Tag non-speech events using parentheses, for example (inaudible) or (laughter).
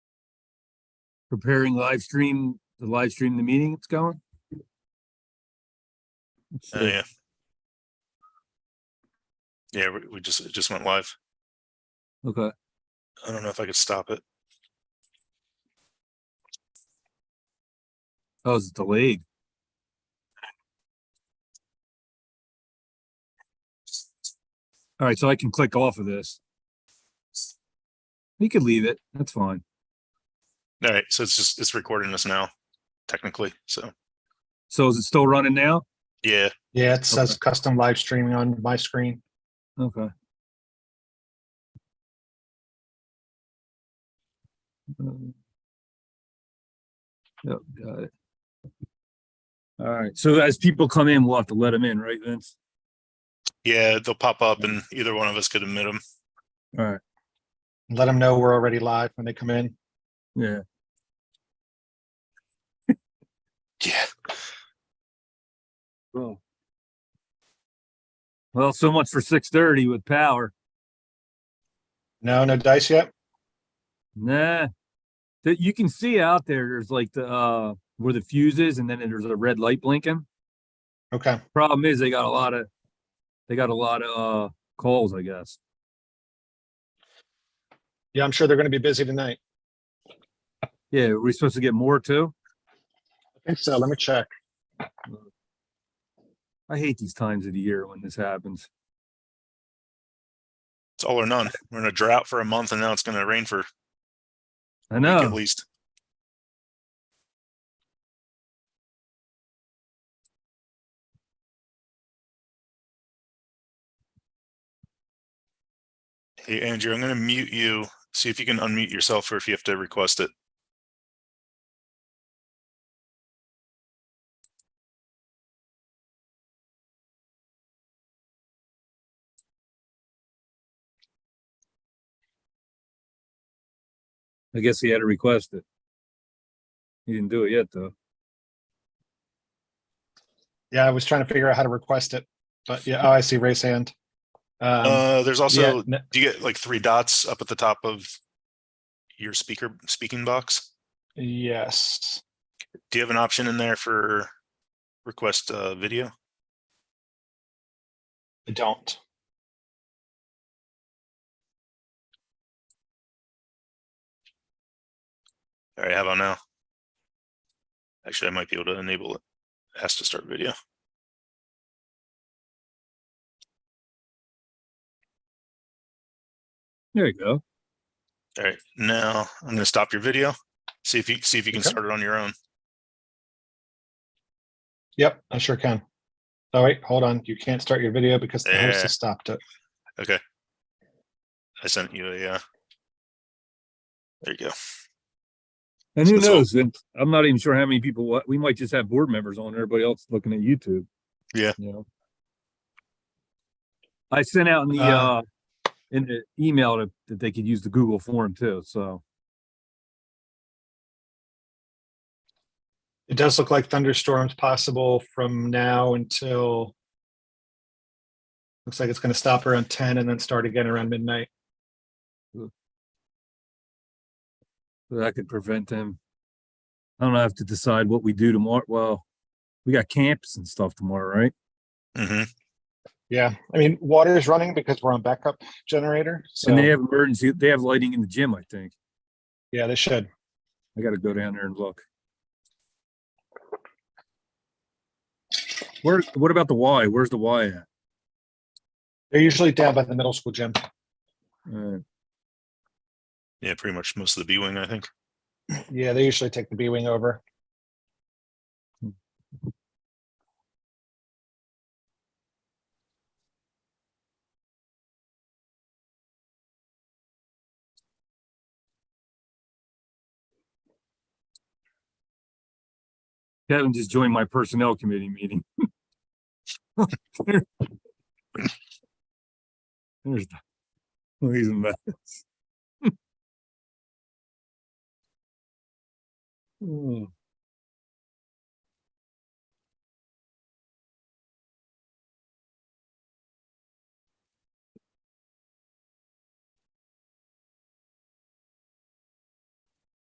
preparing live stream, the live stream, the meeting it's going? Let's Oh, see. yeah. Yeah, we- we just, it just went live. Okay, I don't know if I could stop it. oh, it's delayed. All right, so I can click off of this. We could leave it, that's fine. All right, so it's just, it's recording us now, technically, so, So is it still running now? yeah. Yeah, it Okay. says custom live streaming on my screen. Okay. Um, Yep, got it. All right, so as people come in, we'll have to let them in, right, Vince? Yeah, they'll pop up and either one of us could admit them. All right, Let them know we're already live when they come in. yeah, Yeah. well. Well, so much for six thirty with power. No, no dice yet? Nah. That you can see out there, there's like the, uh, where the fuse is and then there's a red light blinking. Okay. Problem is, they got a lot of, they got a lot of, uh, calls, I guess. Yeah, I'm sure they're going to be busy tonight. Yeah, are we supposed to get more too? I think so. Let me check. I hate these times of the year when this happens. It's all or none. We're in a drought for a month and now it's gonna rain for I a week at know. least. Hey, Andrew, I'm gonna mute you. See if you can unmute yourself or if you have to request it. I guess he had to request it. He didn't do it yet though. Yeah, I was trying to figure out how to request it, but yeah, oh, I see raise hand. Um, Uh, there's also yeah, n- Do you get like three dots up at the top of your speaker speaking box? yes. Do you have an option in there for request uh, video? I don't. All right, how about now? Actually, I might be able to enable it. Has to start video. There you go. All right, now I'm going to stop your video. See if you see if you can Okay. start it on your own. Yep, I sure can. Oh, wait, hold on. You can't start your video because the host Yeah. has stopped it. I sent you a. Uh... There you go. And So who that's all- knows? Vince? I'm not even sure how many people, wa- we might just have board members on, everybody else looking at YouTube. Yeah. You know? I sent out in the, uh, Uh, in the email to- that they could use the Google form too, so. It does look like thunderstorms possible from now until looks like it's going to stop around 10 and then start again around midnight. So that could prevent them. I don't have to decide what we do tomorrow. Well, we got camps and stuff tomorrow, right? hmm Yeah, I mean, water is running because we're on backup generator. So And they have emergency, they have lighting in the gym, I think. yeah, they should. I gotta go down there and look. Where, what about the Y? Where's the Y at? They're usually down by the middle school gym. Uh, Yeah, pretty much most of the B wing, I think. Yeah, they usually take the B wing over. Kevin just joined my personnel committee meeting. (laughs) There's, the- well, he's a mess. (laughs) Oh,